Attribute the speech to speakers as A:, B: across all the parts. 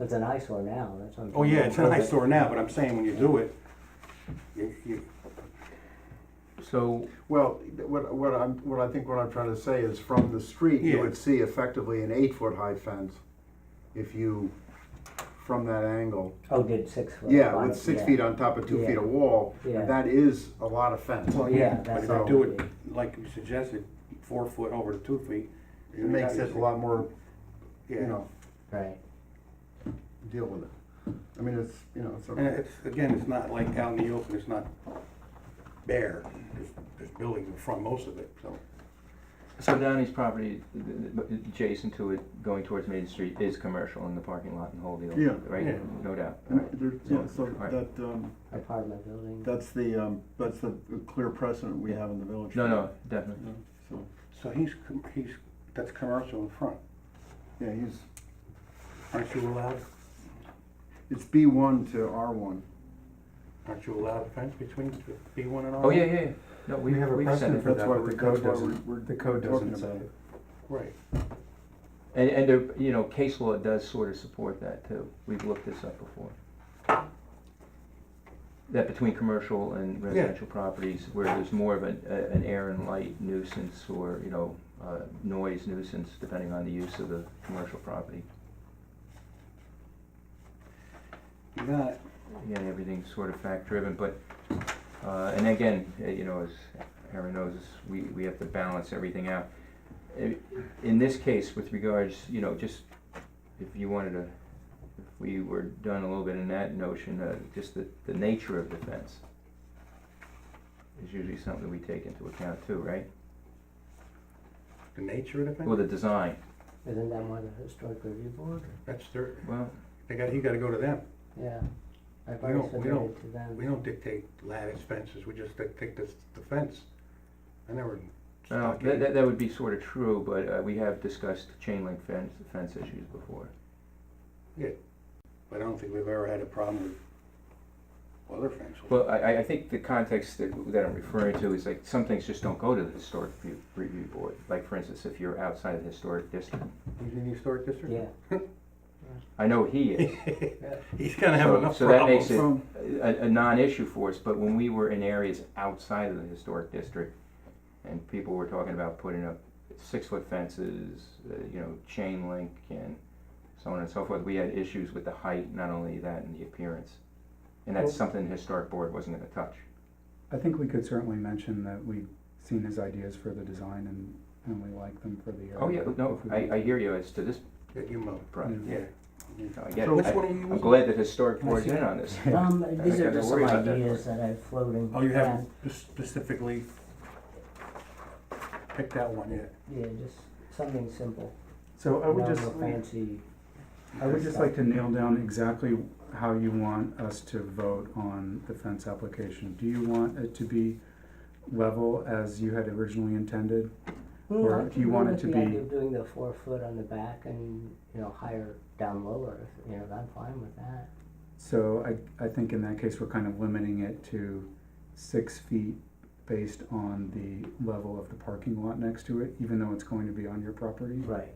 A: It's an eyesore now, that's what I'm.
B: Oh,
A: trying to
B: yeah, it's an
A: improve it.
B: eyesore now, but I'm saying when you do it, you, you,
C: So,
D: Well, what, what I'm, what I think what I'm trying to say is from the street, you
B: Yeah.
D: would see effectively an eight-foot high fence if you, from that angle.
A: Oh, did six foot.
D: Yeah,
A: five,
D: with six
A: yeah.
D: feet on top of two feet
A: Yeah.
D: of wall,
A: Yeah.
D: and that is a lot of fence.
B: well,
A: Yeah,
B: yeah, but
A: that's
B: if you
D: all
B: do
A: it
B: it, like you suggested, four foot over to two feet.
D: It makes it a lot more, you
B: Yeah.
D: know,
A: Right,
D: deal with it. I mean, it's, you know, it's,
B: And
D: a-
B: it's, again, it's not like out in the open, it's not bare, there's, there's buildings in front, most of it, so.
C: so Donnie's property th- th- th- adjacent to it, going towards Main Street, is commercial in the parking lot and whole deal,
E: Yeah,
C: right?
B: yeah.
C: No doubt. All right.
E: There, yeah, so
C: Alright.
E: that, um,
A: apartment building.
E: that's the, um, that's the clear precedent we have in the village.
C: No, no, definitely.
E: So,
B: So he's, com- he's, that's commercial in front,
E: yeah, he's,
B: aren't you allowed,
D: it's B one to R one.
B: aren't you allowed a fence between B one and R?
C: Oh, yeah, yeah, yeah. No, we,
B: Um, We have a
C: we've said
B: precedent
C: it.
B: for
E: that's
B: that,
E: why
B: but
E: we're,
B: the code
E: that's why we're,
B: doesn't-
E: we're
F: The code
E: talking
F: doesn't
E: about
F: say
E: it.
F: it.
B: Right,
C: And, and there, you know, case law does sort of support that too. We've looked this up before. That between commercial and residential properties where there's more of an, a- an air and light nuisance or, you know, uh, noise nuisance, depending on the use of the commercial property.
B: you got it.
C: Again, everything's sort of fact driven, but, uh, and again, uh, you know, as Aaron knows, is we, we have to balance everything out. I- In this case, with regards, you know, just if you wanted to, if we were done a little bit in that notion, uh, just the, the nature of the fence is usually something we take into account too, right?
B: The nature of the
C: Well,
B: fence,
C: the design,
A: Isn't that more the historic review board?
B: that's their,
C: well,
B: they got, you gotta go to them.
A: Yeah. I've
B: We
A: already
B: don't- we
A: submitted
B: don't-
A: to them.
B: We don't dictate lattice fences, we just dictate the, the fence. I never.
C: well,
B: stuck
C: that,
B: in-
C: that, that would be sort of true, but, uh, we have discussed chain link fence, fence issues before.
B: But I don't think we've ever had a problem with other fences.
C: Well, I- I, I think the context that, that I'm referring to is like, some things just don't go to the historic review, review board. Like, for instance, if you're outside of the historic district,
B: He's in the historic district?
A: Yeah,
C: I know he is.
B: He's gonna have
C: So-
B: enough
C: so that
B: problems.
C: makes it-
E: From,
C: A, a non-issue for us, but when we were in areas outside of the historic district, and people were talking about putting up six-foot fences, uh, you know, chain link and so on and so forth, we had issues with the height, not only that, and the appearance. And
B: Oh.
C: that's something the historic board wasn't gonna touch.
F: I think we could certainly mention that we've seen his ideas for the design and, and we like them for the area.
C: Oh, yeah, no,
F: If we-
C: I, I hear you as to this
B: That you mow,
C: project.
B: yeah.
C: I get it.
B: So which
C: I-
B: one are you
C: I'm
B: using?
C: glad that historic board's in on this.
A: um, these
C: think
A: are
C: I've
A: just some
C: worried about that
A: ideas that I'm floating.
B: Oh, you
A: around.
B: haven't spe- specifically picked that one yet?
A: Yeah, just something simple,
F: So I
A: no
F: would
A: no
F: just,
A: fancy,
F: I would just like to nail down exactly how you want us to vote on the fence application. Do you want it to be level as you had originally intended? Or
A: Mm,
F: do you want it to
A: I like the
F: be-
A: idea of doing the four foot on the back and, you know, higher down lower, you know, I'm fine with that.
F: So I, I think in that case, we're kind of limiting it to six feet based on the level of the parking lot next to it, even though it's going to be on your property.
A: Right.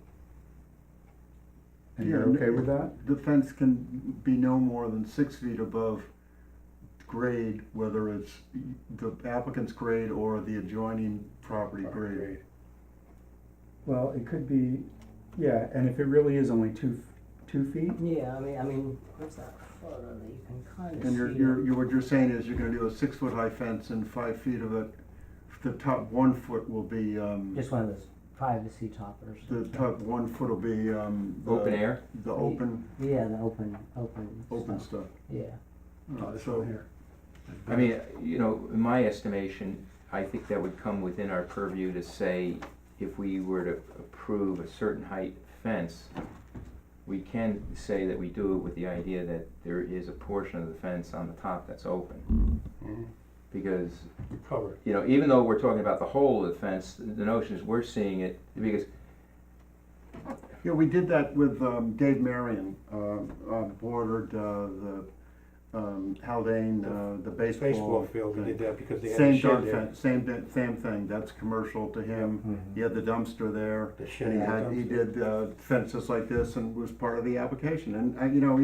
F: And you're
E: Yeah,
F: okay with that?
E: the fence can be no more than six feet above grade, whether it's the applicant's grade or the adjoining property grade.
B: Great.
F: Well, it could be, yeah, and if it really is only two, f- two feet,
A: Yeah, I mean, I mean, what's that photo that you can kind of see?
E: And you're,
B: um,
E: you're, you what you're saying is you're gonna do a six foot high fence and five feet of it, the top one foot will be, um,
A: Just one of those privacy toppers.
E: the top one foot will be, um. the-
C: Open air?
E: The open,
A: Yeah, the open, open
E: open
A: stuff.
E: stuff.
A: Yeah.
E: Uh,
D: This
E: So,
D: one here.
C: I mean, you know, in my estimation, I think that would come within our purview to say, if we were to approve a certain height fence, we can say that we do it with the idea that there is a portion of the fence on the top that's open.
B: Mhm.
C: Because,
B: Covered.
C: you know, even though we're talking about the whole of the fence, the notion is we're seeing it, because
E: yeah, we did that with, um, Dave Marion, um, uh, uh, bordered, uh, the, um, Haldane, uh, the baseball.
B: Baseball field, we
E: thing.
B: did that because they had the
E: Same
B: shed
E: darn
B: there.
E: thing, same, di- same thing, that's commercial to him,
A: Mhm.
B: Mm-hmm.
E: he had the dumpster there.
B: The shed
E: And he
B: and the
E: had, he
B: dumpster.
E: did uh, fences like this and was part of the application, and, uh, you know,